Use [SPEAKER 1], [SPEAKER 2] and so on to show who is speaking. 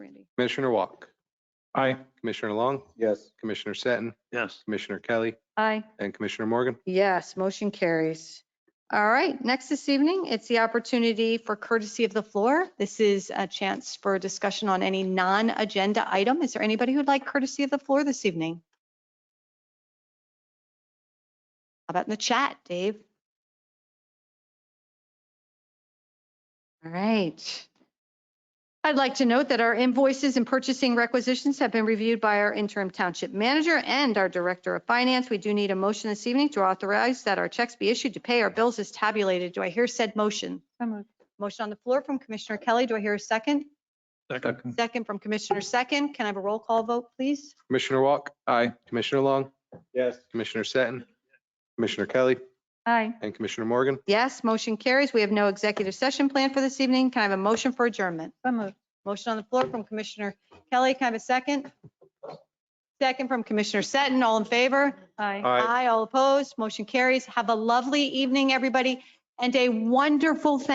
[SPEAKER 1] Commissioner Walk,
[SPEAKER 2] Aye.
[SPEAKER 1] Commissioner Long,
[SPEAKER 3] Yes.
[SPEAKER 1] Commissioner Seton,
[SPEAKER 4] Yes.
[SPEAKER 1] Commissioner Kelly,
[SPEAKER 5] Aye.
[SPEAKER 1] and Commissioner Morgan.
[SPEAKER 5] Yes, motion carries. All right, next this evening, it's the opportunity for courtesy of the floor. This is a chance for discussion on any non-agenda item. Is there anybody who'd like courtesy of the floor this evening? How about in the chat, Dave? All right. I'd like to note that our invoices and purchasing requisitions have been reviewed by our interim township manager and our director of finance. We do need a motion this evening to authorize that our checks be issued to pay our bills as tabulated. Do I hear said motion? Motion on the floor from Commissioner Kelly. Do I hear a second?
[SPEAKER 2] Second.
[SPEAKER 5] Second from Commissioner Second. Can I have a roll call vote, please?
[SPEAKER 1] Commissioner Walk,
[SPEAKER 2] Aye.
[SPEAKER 1] Commissioner Long,
[SPEAKER 3] Yes.
[SPEAKER 1] Commissioner Seton, Commissioner Kelly,
[SPEAKER 5] Aye.
[SPEAKER 1] and Commissioner Morgan.
[SPEAKER 5] Yes, motion carries. We have no executive session planned for this evening. Can I have a motion for adjournment? Motion on the floor from Commissioner Kelly. Can I have a second? Second from Commissioner Seton. All in favor? Aye.
[SPEAKER 1] Aye.
[SPEAKER 5] Aye, all opposed. Motion carries. Have a lovely evening, everybody, and a wonderful